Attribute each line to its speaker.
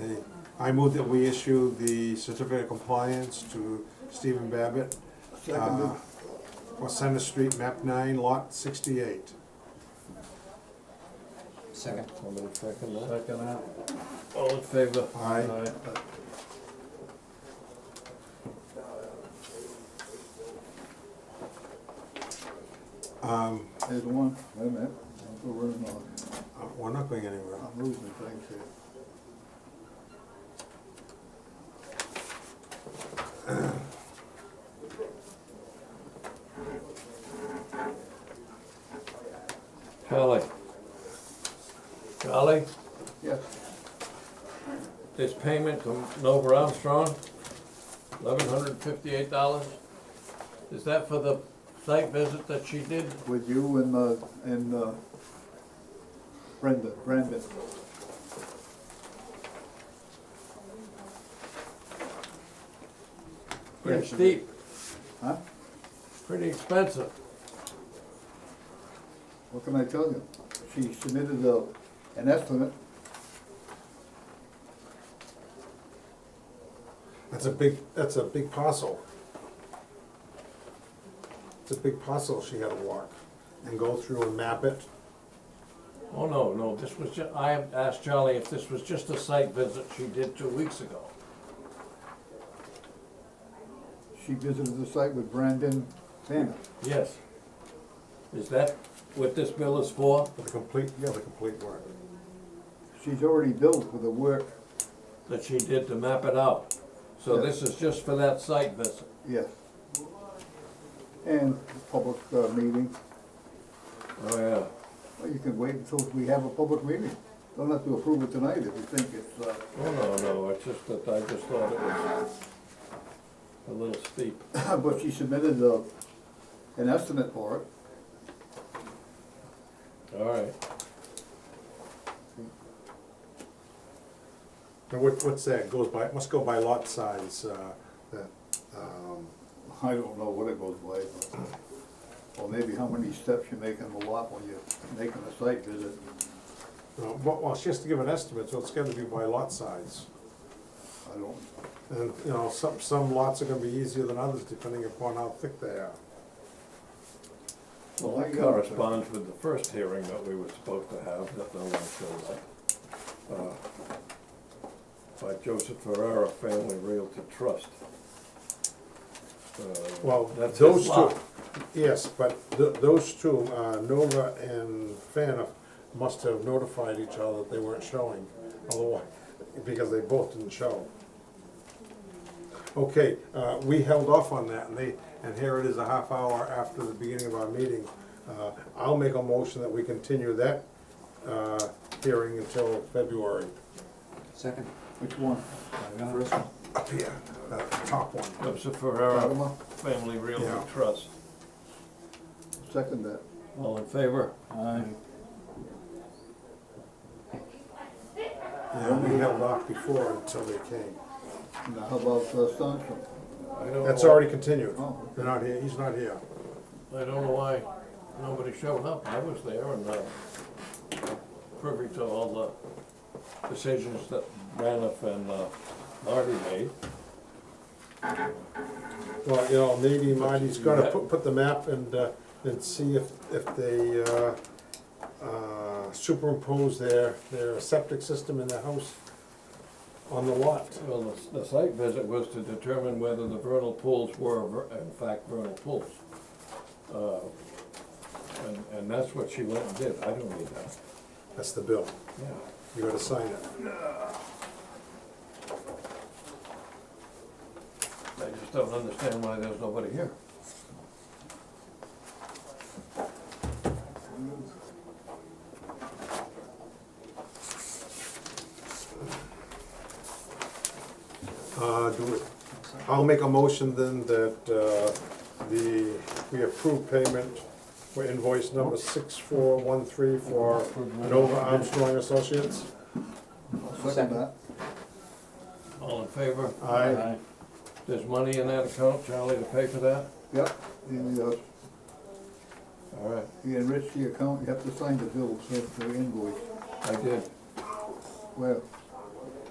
Speaker 1: Okay, I move that we issue the certificate of compliance to Stephen Babbitt
Speaker 2: Seconded.
Speaker 1: Uh, for Center Street, map nine, lot sixty-eight.
Speaker 3: Second.
Speaker 2: Somebody second that?
Speaker 4: Second that. All in favor?
Speaker 1: Aye. Um,
Speaker 2: There's one, wait a minute, I'm losing,
Speaker 1: uh, we're not going anywhere.
Speaker 2: I'm losing things here.
Speaker 4: Charlie. Charlie,
Speaker 2: Yes,
Speaker 4: this payment from Nova Armstrong, eleven hundred and fifty-eight dollars. Is that for the site visit that she did?
Speaker 2: with you and, uh, and, uh, Brenda, Brandon.
Speaker 4: Pretty
Speaker 2: Yes.
Speaker 4: steep,
Speaker 2: Huh?
Speaker 4: pretty expensive.
Speaker 2: What can I tell you? She submitted a, an estimate,
Speaker 1: That's a big, that's a big parcel. It's a big parcel she had to walk and go through and map it.
Speaker 4: Oh, no, no, this was ju, I asked Charlie if this was just a site visit she did two weeks ago.
Speaker 2: she visited the site with Brandon Tanner.
Speaker 4: Yes. Is that what this bill is for?
Speaker 1: For the complete, yeah, the complete work.
Speaker 2: She's already billed for the work,
Speaker 4: That she did to map it out? So
Speaker 2: Yeah.
Speaker 4: this is just for that site visit?
Speaker 2: yes. And public, uh, meeting,
Speaker 4: Oh, yeah.
Speaker 2: well, you can wait until we have a public meeting. Don't have to approve it tonight if you think it's, uh,
Speaker 4: Oh, no, no, it's just that I just thought it was a little steep.
Speaker 2: But she submitted uh, an estimate for it.
Speaker 4: All right.
Speaker 1: And what, what's that, goes by, must go by lot size, uh, that, um,
Speaker 2: I don't know what it goes by, but, or maybe how many steps you make in the lot when you're making a site visit.
Speaker 1: no, but, well, she has to give an estimate, so it's gotta be by lot size.
Speaker 2: I don't,
Speaker 1: And, you know, some, some lots are gonna be easier than others depending upon how thick they are.
Speaker 4: Well, that corresponds with the first hearing that we were supposed to have, that no one showed up. uh, By Joseph Ferrara Family Realty Trust. Uh,
Speaker 1: Well,
Speaker 4: that's his
Speaker 1: those two,
Speaker 4: lot.
Speaker 1: yes, but th- those two, uh, Nova and Fana, must have notified each other that they weren't showing, otherwise, because they both didn't show. Okay, uh, we held off on that, and they, and here it is a half hour after the beginning of our meeting. Uh, I'll make a motion that we continue that uh, hearing until February.
Speaker 3: Second.
Speaker 2: which one?
Speaker 3: First one.
Speaker 1: Up here, uh, top one.
Speaker 4: Joseph
Speaker 2: That
Speaker 4: Ferrara
Speaker 2: one?
Speaker 4: Family
Speaker 1: Yeah.
Speaker 4: Realty Trust.
Speaker 2: Second that.
Speaker 4: All in favor?
Speaker 2: Aye.
Speaker 1: Yeah, we held off before until they came.
Speaker 2: Now, how about uh, Stanton?
Speaker 4: I don't
Speaker 1: That's
Speaker 4: know-
Speaker 1: already continued.
Speaker 2: Oh,
Speaker 1: They're not here, he's not here.
Speaker 4: I don't know why nobody showed up. I was there and, uh, privy to all the decisions that Braniff and, uh, Marty made.
Speaker 1: Well, you know, maybe Marty's gonna put, put the map and, uh, and see if, if they, uh, uh, superimpose their, their septic system in their house on the lot.
Speaker 4: Well, the, s- the site visit was to determine whether the vernal pools were ver- in fact vernal pools. Uh, And, and that's what she went and did. I don't need that.
Speaker 1: That's the bill.
Speaker 4: Yeah.
Speaker 1: You gotta sign it.
Speaker 4: I just don't understand why there's nobody here.
Speaker 1: Uh, do it. I'll make a motion then that, uh, the, we approve payment for invoice number six four one three for Nova Armstrong Associates.
Speaker 2: I'll second
Speaker 3: Second.
Speaker 2: that.
Speaker 4: All in favor?
Speaker 1: Aye.
Speaker 4: There's money in that account, Charlie, to pay for that?
Speaker 2: Yep, you, uh,
Speaker 4: All right,
Speaker 2: you enrich the account, you have to sign the bill, you have to invoice.
Speaker 4: I did.
Speaker 2: Well,